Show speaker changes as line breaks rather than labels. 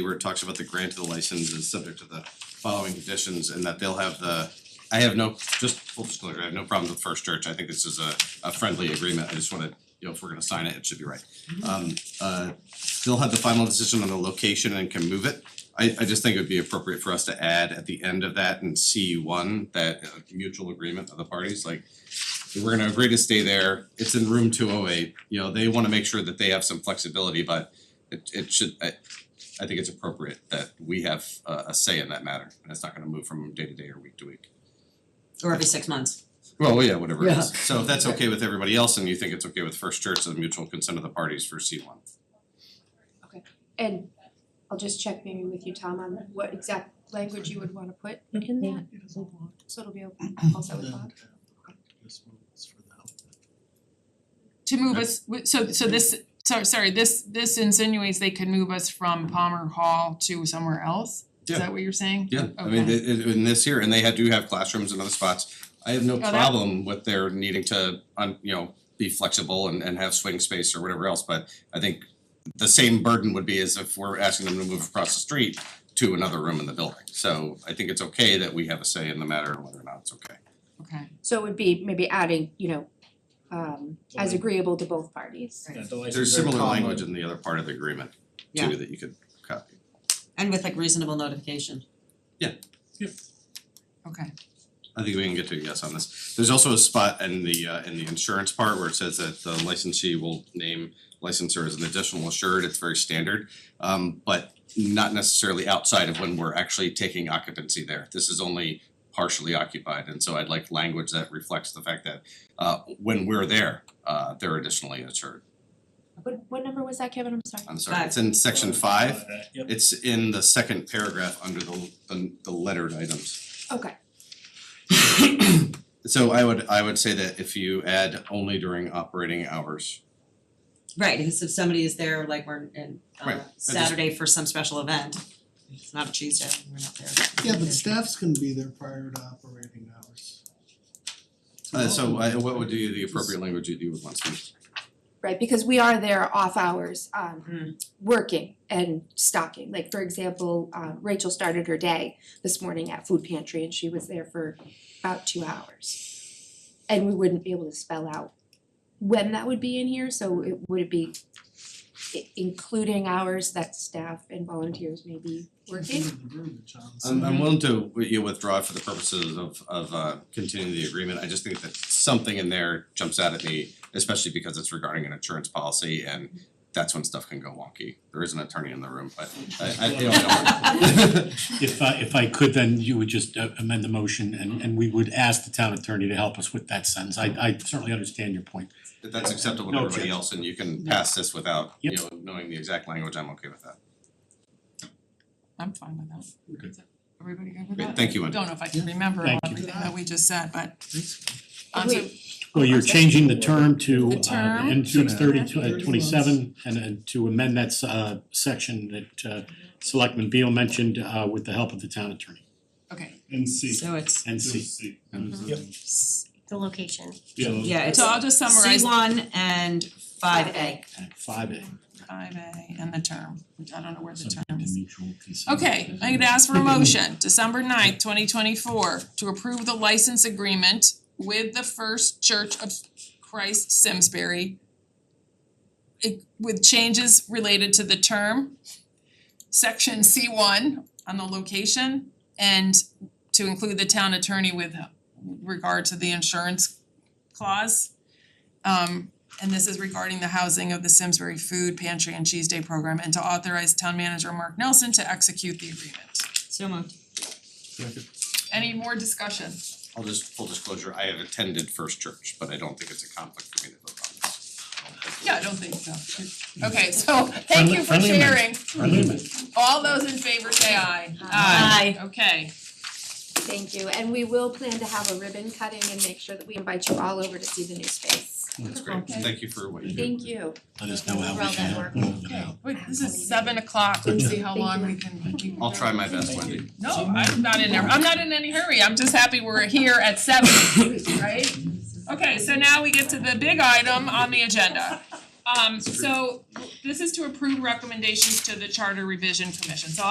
where it talks about the grant of the license is subject to the following conditions and that they'll have the, I have no, just full disclosure, I have no problem with First Church, I think this is a a friendly agreement, I just wanna, you know, if we're gonna sign it, it should be right. Um uh they'll have the final decision on the location and can move it. I I just think it would be appropriate for us to add at the end of that in C one, that uh, mutual agreement of the parties, like we're gonna agree to stay there, it's in room two oh eight, you know, they wanna make sure that they have some flexibility, but it it should, I I think it's appropriate that we have a a say in that matter, and it's not gonna move from day to day or week to week.
or every six months.
Well, yeah, whatever it
Yeah.
is, so if that's okay with everybody else and you think it's okay with First Church, the mutual consent of the parties for C one.
And I'll just check maybe with you, Tom, on what exact language you would wanna put in that, so it'll be open also with Bob.
to move us, w- so so this, so sorry, this this insinuates they could move us from Palmer Hall to somewhere else? Is
Yeah.
that what you're saying?
Yeah, I mean,
Okay.
it it in this here, and they had do have classrooms and other spots, I have no
Oh, that-
problem with their needing to, um, you know, be flexible and and have swing space or whatever else, but I think the same burden would be as if we're asking them to move across the street to another room in the building, so I think it's okay that we have a say in the matter and whether or not it's okay.
Okay,
So it would be maybe adding, you know, um as agreeable to both parties.
Right.
There's similar language in the other part of the agreement
Yeah.
too that you could copy.
And with like reasonable notification.
okay,
I think we can get to a yes on this. There's also a spot in the uh in the insurance part where it says that the licensee will name licensor as an additional assured, it's very standard. Um but not necessarily outside of when we're actually taking occupancy there. This is only partially occupied and so I'd like language that reflects the fact that uh when we're there, uh they're additionally assured.
What what number was that, Kevin? I'm sorry.
I'm sorry, it's in section five.
Yep.
It's in the second paragraph under the the the lettered items.
Okay,
So I would I would say that if you add only during operating hours.
Right, because if somebody is there, like we're in
Right,
uh
I just-
Saturday for some special event, it's not a Tuesday, we're not there.
Yeah, but staff's gonna be there prior to operating hours.
Uh so I what would be the appropriate language you you would want to use?
right, because we are there off hours, um
Mm.
working and stocking. Like for example, uh Rachel started her day this morning at food pantry and she was there for about two hours. And we wouldn't be able to spell out when that would be in here, so it would it be i- including hours that staff and volunteers may be working?
I'm I'm willing to wi- you withdraw for the purposes of of uh continuing the agreement. I just think that something in there jumps out at me, especially because it's regarding an insurance policy and that's when stuff can go wonky. There is an attorney in the room, but I I you know, don't worry.
If I if I could, then you would just uh, amend the motion and and we would ask the town attorney to help us with that sentence. I I certainly understand your point.
If that's acceptable to
No
everybody
objection.
else and you can pass this without, you
Yep.
know, knowing the exact language, I'm okay with that.
I'm fine with that.
Okay.
Everybody good with
Great,
that?
thank you,
I
Wendy.
Don't know if I can remember all
Thank you.
everything that we just said, but um so
Wait,
Well, you're changing the term to
The
uh
term?
and to thirty two
Thirty
uh
one.
twenty seven and and to amend that s- uh section that uh Selectman Beal mentioned uh with the help of the town attorney
okay,
And C.
So it's,
and see.
Yep.
the location.
yeah, it's
so I'll just
C
summarize
one and five A.
Five A.
five A and the term, which I don't know where the
Subject
term
to
is.
mutual consent.
Okay, I'm gonna ask for a motion, December ninth, twenty twenty-four, to approve the license agreement with the First Church of Christ Simsbury it- with changes related to the term, section C one on the location, and to include the town attorney with regard to the insurance clause. Um, and this is regarding the housing of the Simsbury Food Pantry and Cheese Day Program and to authorize town manager Mark Nelson to execute the agreement.
So moved.
Any more discussion?
I'll just full disclosure, I have attended First Church, but I don't think it's a conflict for me to vote on this. I don't think-
Yeah, I don't think so. Okay, so thank you for
Friendly- friendly
sharing.
amendment. Friendly amendment.
All those in favor say aye.
Aye.
Okay,
Thank you, and we will plan to have a ribbon cutting and make sure that we invite you all over to see the new space.
That's great,
Okay.
thank you for what you do.
Thank you.
Let us know how
Roll
we
that
can help.
work.
Roll that out.
wait, this is seven o'clock. Let's see how
Thank
long
you.
we can keep it
I'll try
going.
my best, Wendy.
No, I'm not in there. I'm not in any hurry. I'm just happy we're here at seven, right? Okay, so now we get to the big item on the agenda. Um so this is to approve recommendations to the Charter Revision Commission, so